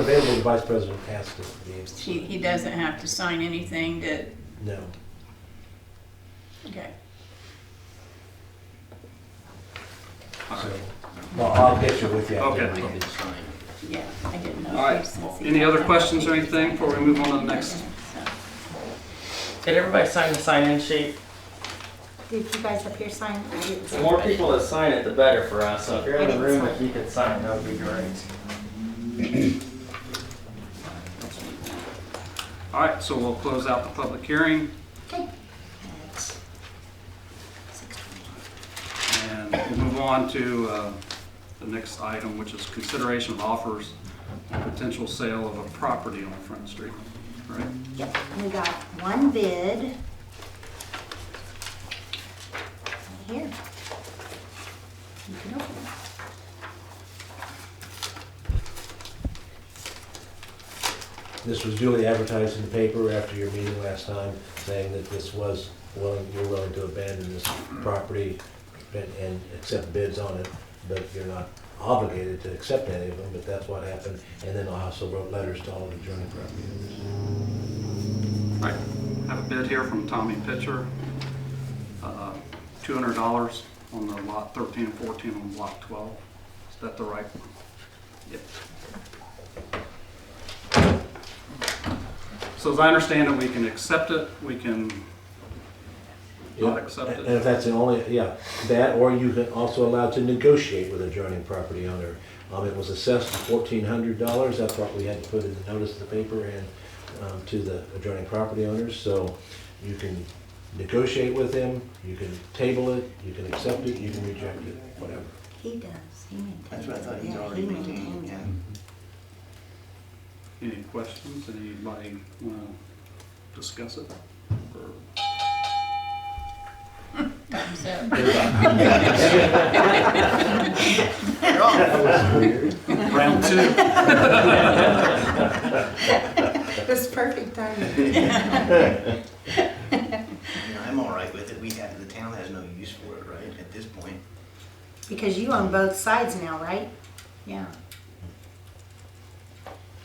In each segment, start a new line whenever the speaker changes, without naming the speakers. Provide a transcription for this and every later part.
Available, the vice president has to be able to
He,
sign.
he doesn't have to sign anything to,
No.
okay.
So, well, I'll get you with you. after
Okay.
the meeting.
Yeah, I didn't know.
All right. Any other questions or anything before we move on to the next?
Did everybody sign the sign-in sheet?
Did you guys up here sign? I didn't
The
sign.
more people that sign it, the better for us. So if you're in
I
the
didn't
room,
sign.
if you could sign, that would be great.
All right, so we'll close out the public hearing and we'll move on to uh, the next item, which is consideration of offers on potential sale of a property on Front Street, right?
Yep, we got one bid. Here. You can open it.
This was duly advertised in the paper after your meeting last time, saying that this was, willing you're willing to abandon this property and, and accept bids on it, but you're not obligated to accept any of them, but that's what happened. And then I also wrote letters to all the adjoining property owners.
Right. Have a bid here from Tommy Pitcher, uh, $200 on the lot 13 and 14 on block 12. Is that the right one? Yep. So as I understand it, we can accept it, we can
Yeah.
not accept
And if
it.
that's the only, yeah, that, or you can also allow to negotiate with adjoining property owner. Um, it was assessed fourteen hundred dollars, that's what we had to put in the notice of the paper and, um, to the adjoining property owners, so you can negotiate with them, you can table it, you can accept it, you can reject it, whatever.
He does, he maintains.
That's what I thought
it.
he's
Yeah, he
already
maintains
maintained,
it.
yeah.
Any questions? Anybody want to discuss it? Or-
So,
That was weird.
Round two.
That's perfect timing.
You know, I'm all right with it, we have, the town has no use for it, right, at this point.
Because you own both sides now, right? Yeah.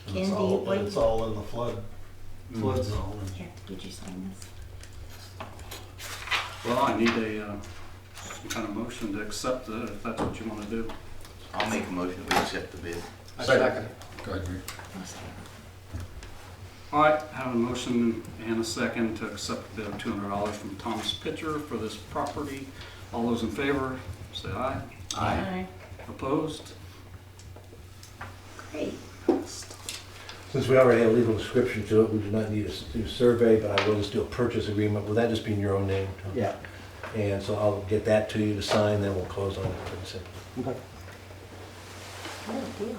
Ken, do
It's
you,
all,
what,
it's all in the flood, flood zone.
here, did you sign this?
Well, I need a, uh, some kind of motion to accept it, if that's what you want to do.
I'll make a motion, we accept the bid.
All right, have a motion and a second to accept the bid of two hundred dollars from Thomas Pitcher for this property. All those in favor, say aye.
aye.
Opposed?
Great.
Since we already have a legal description to it, we do not need a s- do a survey, but I will just do a purchase agreement. Will that just be in your own name? Tom?
Yeah.
And so I'll get that to you to sign, then we'll close on it pretty simple.
Good deal.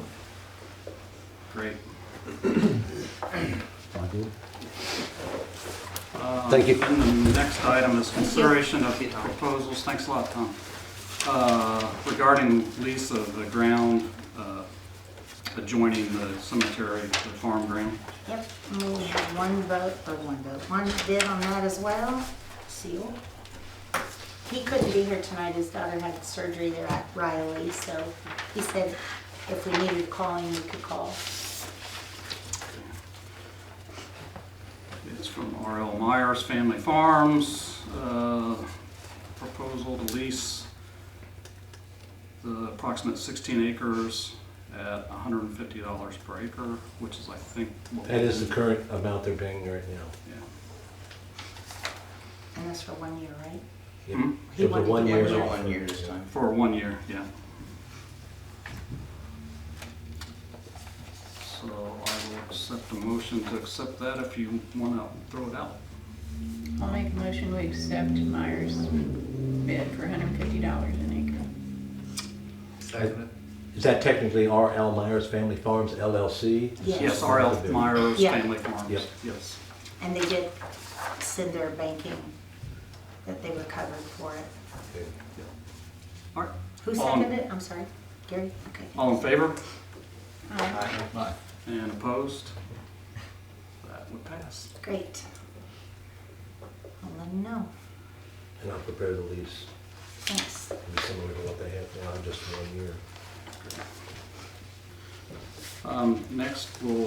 Great.
Thank you.
Uh, And the next item is consideration of proposals, thanks a lot, Tom, Uh, regarding lease of the ground uh, adjoining the cemetery, the farm ground.
Yep, and we have one vote, or one vote, one bid on that as well, Seal. He couldn't be here tonight, his daughter had surgery there at Riley, so he said if we needed to call him, we could call.
It's from R.L. Myers Family Farms, uh, proposal to lease the approximate 16 acres at $150 per acre, which is, I think, what
That is the current amount they're paying right now.
Yeah.
And that's for one year, right?
Yeah.
Hmm?
He
It was a
wanted to
one-year
do
It's
offer.
it.
all one year this time.
For one year, yeah. So I will accept a motion to accept that if you want to throw it out.
I'll make a motion, we accept Myers bid for hundred and fifty dollars an acre.
Is that technically R.L. Myers Family Farms LLC?
Yes,
Yes,
R.L. Myers
Yeah.
Family Farms,
Yep.
yes.
and they did send their banking, that they were covered for it.
Okay.
All right,
Who
Um,
seconded it? I'm sorry, Gary? Okay.
all in favor?
Aye.
And opposed? That would pass.
Great. I'll let him know,
And I'll prepare the lease,
thanks.
it'll be similar to what they have now, just one year.
Um, Next, we'll